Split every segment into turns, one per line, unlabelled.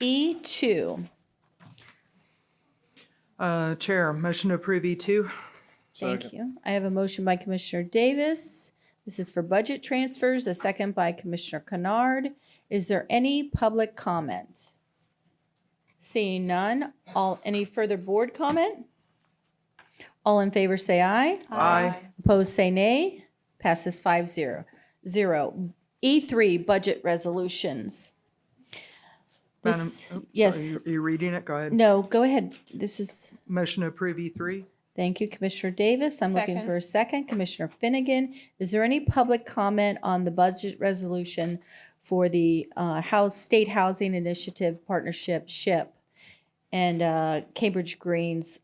E E2.
Uh, Chair, motion to approve E E2.
Thank you. I have a motion by Commissioner Davis. This is for budget transfers, a second by Commissioner Kennard. Is there any public comment? Seeing none, all, any further board comment? All in favor say aye.
Aye.
Opposed say nay. Passes five zero. Zero. E3, budget resolutions.
Madam,
This-
oops,
yes.
Are you- you reading it? Go ahead.
No, go ahead. This is.
Motion to approve E E3.
Thank you, Commissioner Davis. I'm looking
Second.
for a second. Commissioner Finnegan, is there any public comment on the budget resolution for the uh, House State Housing Initiative Partnership SHIP and uh, Cambridge Greens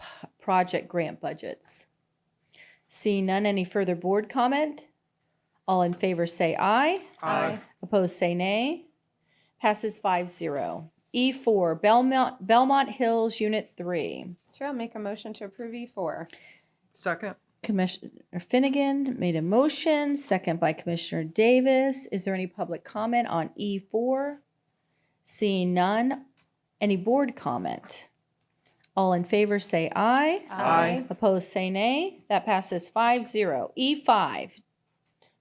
p- project grant budgets? Seeing none, any further board comment? All in favor say aye.
Aye.
Opposed, say nay. Passes five zero. E4, Belmont, Belmont Hills Unit 3.
Chair, I'll make a motion to approve E E4.
Second.
Commissioner Finnegan made a motion, second by Commissioner Davis. Is there any public comment on E4? Seeing none, any board comment? All in favor say aye.
Aye.
Opposed say nay. That passes 5-0. E5,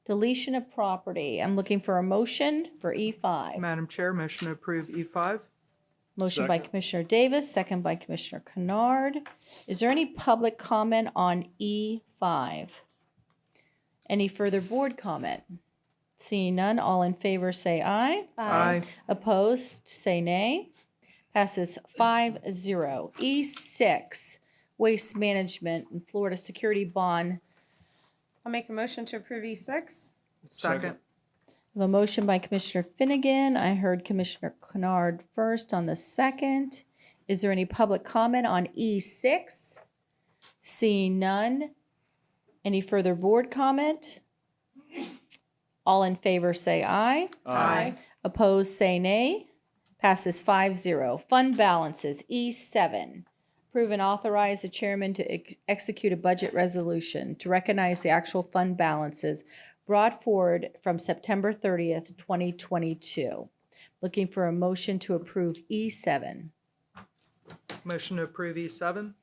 deletion of property. I'm looking for a motion for E E5.
Madam Chair, motion to approve E E5.
Motion by Commissioner Davis, second by Commissioner Kennard. Is there any public comment on E5? Any further board comment? Seeing none, all in favor say aye.
Aye.
Opposed, say nay. Passes 5-0. E6, Waste Management and Florida Security Bond.
I'll make a motion to approve E E6.
Second.
I have A motion by Commissioner Finnegan. I heard Commissioner Kennard first on the second. Is there any public comment on E6? Seeing none. Any further board comment? All in favor say aye.
Aye.
Opposed say nay. Passes 5-0. Fund balances, E7. Approve and authorize the chairman to ex- execute a budget resolution to recognize the actual fund balances brought forward from September 30th, 2022. Looking for a motion to approve E E7.
Motion to approve E E7.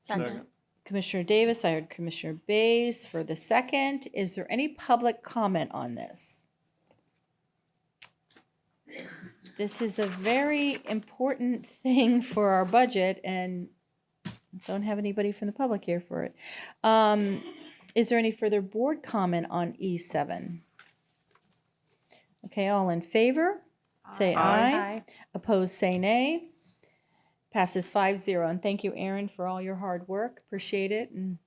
Second.
Commissioner Davis, I heard Commissioner Bays for the second. Is there any public comment on this? This is a very important thing for our budget and don't have anybody from the public here for it. Um, Is there any further board comment on E7? Okay, all in favor? Say
Aye.
aye. Opposed, say nay. Passes five zero. And thank you, Aaron, for all your hard work. Appreciate it. And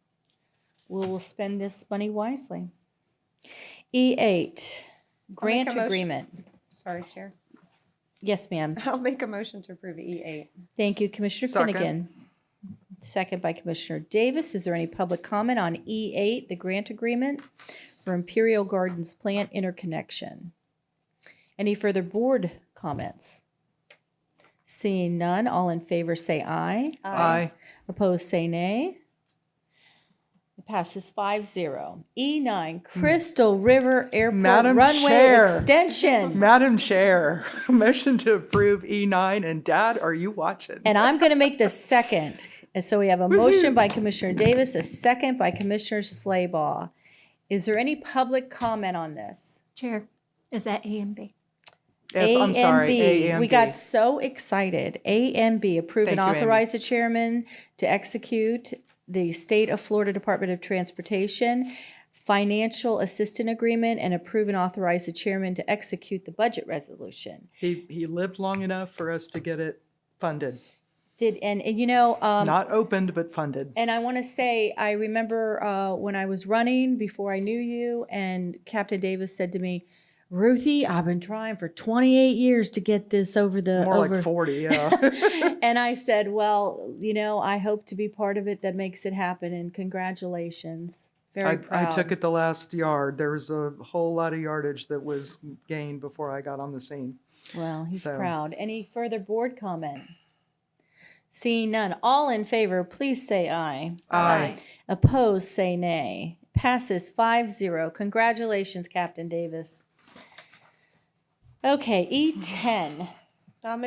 we will spend this money wisely. E8,
make a
grant
motion-
agreement.
Sorry, Chair.
Yes, ma'am.
I'll make a motion to approve E E8.
Thank you, Commissioner
Second.
Finnegan. Second by Commissioner Davis. Is there any public comment on E8, the grant agreement for Imperial Gardens plant interconnection? Any further board comments? Seeing none, all in favor say aye. Opposed, say nay. It passes 5-0. E9, Crystal River Airport
Madam
Runway
Chair.
Extension.
Madam Chair, motion to approve E9. And Dad, are you watching?
And I'm going to make the second. And so we have a motion by Commissioner Davis, a second by Commissioner Slaybaugh. Is there any public comment on this?
Chair, is that A and B?
Yes, I'm
A
sorry.
and B.
A and
We
B.
got so excited. A and B, approve
Thank
and
you, Amy.
authorize the chairman to execute the State of Florida Department of Transportation Financial Assistant Agreement and approve and authorize the chairman to execute the budget resolution.
He, he lived long enough for us to get it funded.
Did, and, and you know, um,
Not opened, but funded.
And I want to say, I remember uh, when I was running before I knew you, and Captain Davis said to me, "Ruthie, I've been trying for 28 years to get this over the
More
over."
like 40, yeah.
and I said, "Well, you know, I hope to be part of it that makes it happen." And congratulations, very
I, I
proud.
took it the last yard. There was a whole lot of yardage that was gained before I got on the scene.
Well, he's
so-
proud. Any further board comment? Seeing none, all in favor, please say aye.
Aye.
Opposed, say nay. Passes 5 0. E Congratulations, Captain Davis. Okay, E10,